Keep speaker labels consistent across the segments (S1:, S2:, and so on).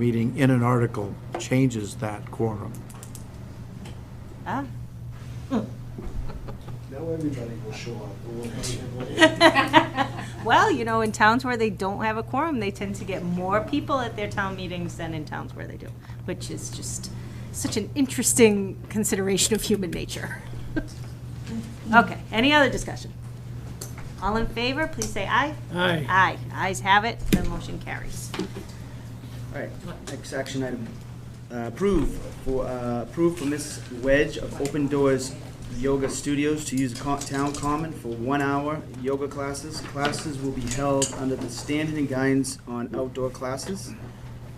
S1: meeting in an article changes that quorum.
S2: Ah,
S3: Now everybody will show up. We'll have
S2: Well, you know, in towns where they don't have a quorum, they tend to get more people at their town meetings than in towns where they do, which is just such an interesting consideration of human nature. Okay, any other discussion? All in favor, please say aye.
S4: Aye.
S2: Aye. Ayes have it, the motion carries.
S5: All right, next action item. Uh, Approve for, uh, approve for Miss Wedge of Open Doors Yoga Studios to use co- town common for one-hour yoga classes. Classes will be held under the standard and guidance on outdoor classes.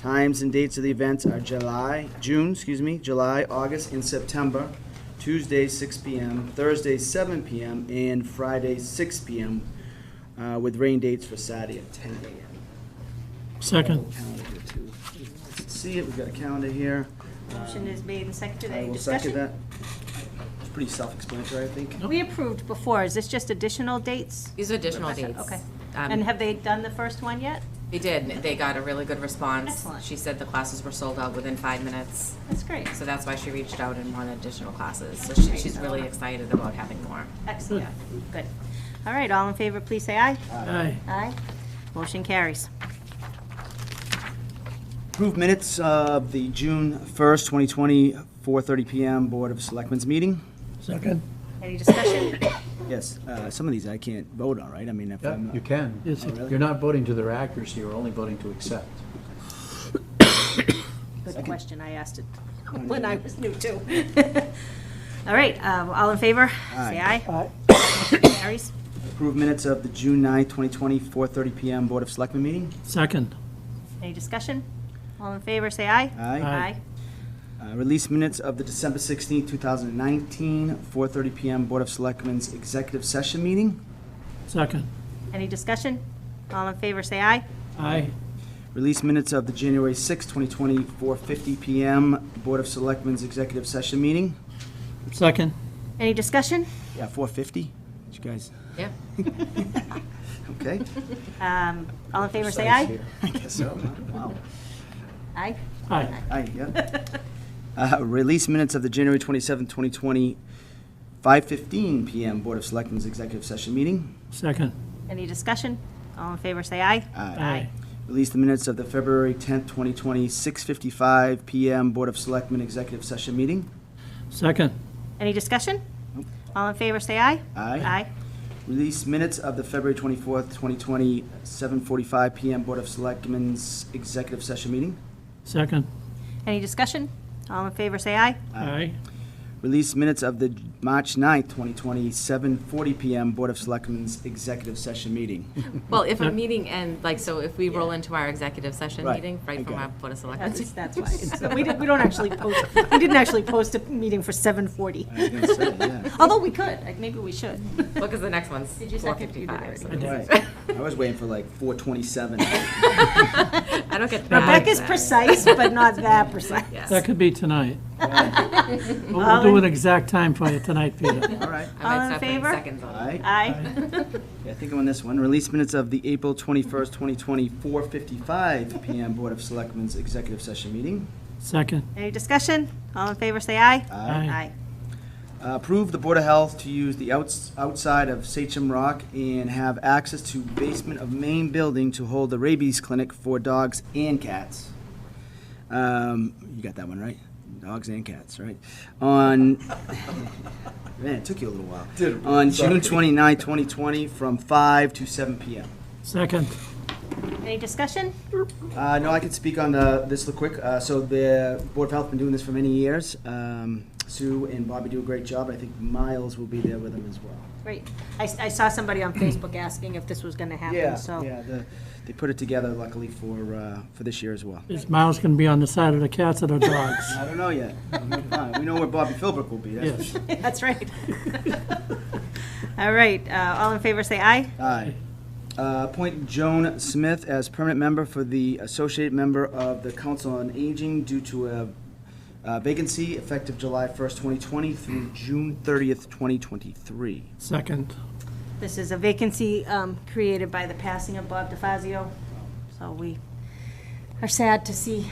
S5: Times and dates of the events are July, June, excuse me, July, August, and September. Tuesday, six PM, Thursday, seven PM, and Friday, six PM, uh, with rain dates for Saturday at ten AM.
S4: Second.
S5: Calendar here, too. See it, we've got a calendar here.
S2: Motion is made and seconded.
S5: I
S2: Any
S5: will second
S2: discussion?
S5: that. It's pretty self-explanatory, I think.
S2: We approved before. Is this just additional dates?
S6: These are additional dates.
S2: Okay.
S6: Um,
S2: And have they done the first one yet?
S6: They did, and they got a really good response.
S2: Excellent.
S6: She said the classes were sold out within five minutes,
S2: That's great.
S6: so that's why she reached out and wanted additional classes. So she- she's really excited about having more.
S2: Excellent, good. All right, all in favor, please say aye.
S4: Aye.
S2: Aye. Motion carries.
S5: Approved minutes of the June 1st, 2020, 4:30 PM Board of Selectmen's meeting.
S4: Second.
S2: Any discussion?
S5: Yes, uh, some of these I can't vote on, right? I mean, if
S1: Yeah,
S5: I'm,
S1: you can.
S4: Yes, it-
S1: You're not voting to their accuracy, you're only voting to accept.
S2: Good question, I asked it when I was new too. All right, um, all in favor, say
S5: Aye.
S2: aye. Aye. Carries.
S5: approved minutes of the June 9th, 2020, 4:30 PM Board of Selectmen meeting.
S4: Second.
S2: Any discussion? All in favor, say aye.
S5: Aye.
S2: Aye.
S5: Uh, Release minutes of the December 16th, 2019, 4:30 PM Board of Selectmen's Executive Session meeting.
S4: Second.
S2: Any discussion? All in favor, say aye.
S4: Aye.
S5: Release minutes of the January 6, 2020, 4:50 PM Board of Selectmen's Executive Session Meeting.
S4: Second.
S2: Any discussion?
S5: Yeah, 4:50? Did you guys,
S6: Yeah.
S5: okay?
S2: Um, all in favor, say aye.
S5: I guess so. Wow.
S2: Aye.
S4: Aye.
S5: Aye, yeah. Uh, Release minutes of the January 27, 2020, 5:15 PM Board of Selectmen's Executive Session Meeting.
S4: Second.
S2: Any discussion? All in favor, say aye.
S4: Aye.
S5: Uh, Release the minutes of the February 10, 2020, 6:55 PM Board of Selectmen Executive Session Meeting.
S4: Second.
S2: Any discussion? All in favor, say aye.
S5: Aye.
S2: Aye.
S5: Release minutes of the February 24th, 2020, 7:45 PM Board of Selectmen's Executive Session Meeting.
S4: Second.
S2: Any discussion? All in favor, say aye.
S4: Aye.
S5: Release minutes of the March 9th, 2020, 7:40 PM Board of Selectmen's Executive Session Meeting.
S6: Well, if a meeting end, like, so if we roll into our executive session
S5: Right,
S6: meeting,
S5: I
S6: right from
S5: got
S6: our
S5: it.
S6: Board of Selectmen.
S2: That's, that's why. So We didn't, we don't actually post, we didn't actually post a meeting for seven forty.
S5: I was gonna say, yeah.
S2: Although we could, like, maybe we should.
S6: Look, at the next one's
S2: Did you second? You did
S6: 4:55. so
S2: already.
S6: this is-
S5: Right. I was waiting for like 4:27.
S6: I don't get that.
S2: Rebecca's precise, but not that precise.
S4: That
S6: Yes.
S4: could be tonight. We'll we'll do an exact time for you tonight, Peter.
S5: All right.
S6: I
S2: All in
S6: might stop putting
S2: favor?
S6: seconds on it.
S5: Aye.
S2: Aye.
S5: Yeah, I think I'm on this one. Release minutes of the April 21st, 2020, 4:55 PM Board of Selectmen's Executive Session Meeting.
S4: Second.
S2: Any discussion? All in favor, say aye.
S4: Aye.
S5: Uh, Approve the Board of Health to use the outs- outside of Sachem Rock and have access to basement of main building to hold the rabies clinic for dogs and cats. Um, You got that one right? Dogs and cats, right? On, man, it took you a little while.
S3: Did it,
S5: On June
S3: sorry.
S5: 29, 2020, from 5 to 7 PM.
S4: Second.
S2: Any discussion?
S5: Uh, no, I could speak on the, this real quick. Uh, so the Board of Health been doing this for many years. Um, Sue and Bobby do a great job. I think Miles will be there with them as well.
S2: Great. I, I saw somebody on Facebook asking if this was gonna happen, so.
S5: yeah. The, they put it together luckily for uh, for this year as well.
S4: Is Miles going to be on the side of the cats or the dogs?
S5: I don't know yet. Fine. we know where Bobby Philbrook will be. That's for
S4: Yes.
S5: sure.
S2: That's right. All right, uh, all in favor, say aye.
S5: Aye. Uh, appoint Joan Smith as permanent member for the associate member of the Council on Aging due to a uh, vacancy effective July 1st, 2020 through June 30th, 2023.
S4: Second.
S2: This is a vacancy um, created by the passing of Bob DeFazio, so we are sad to see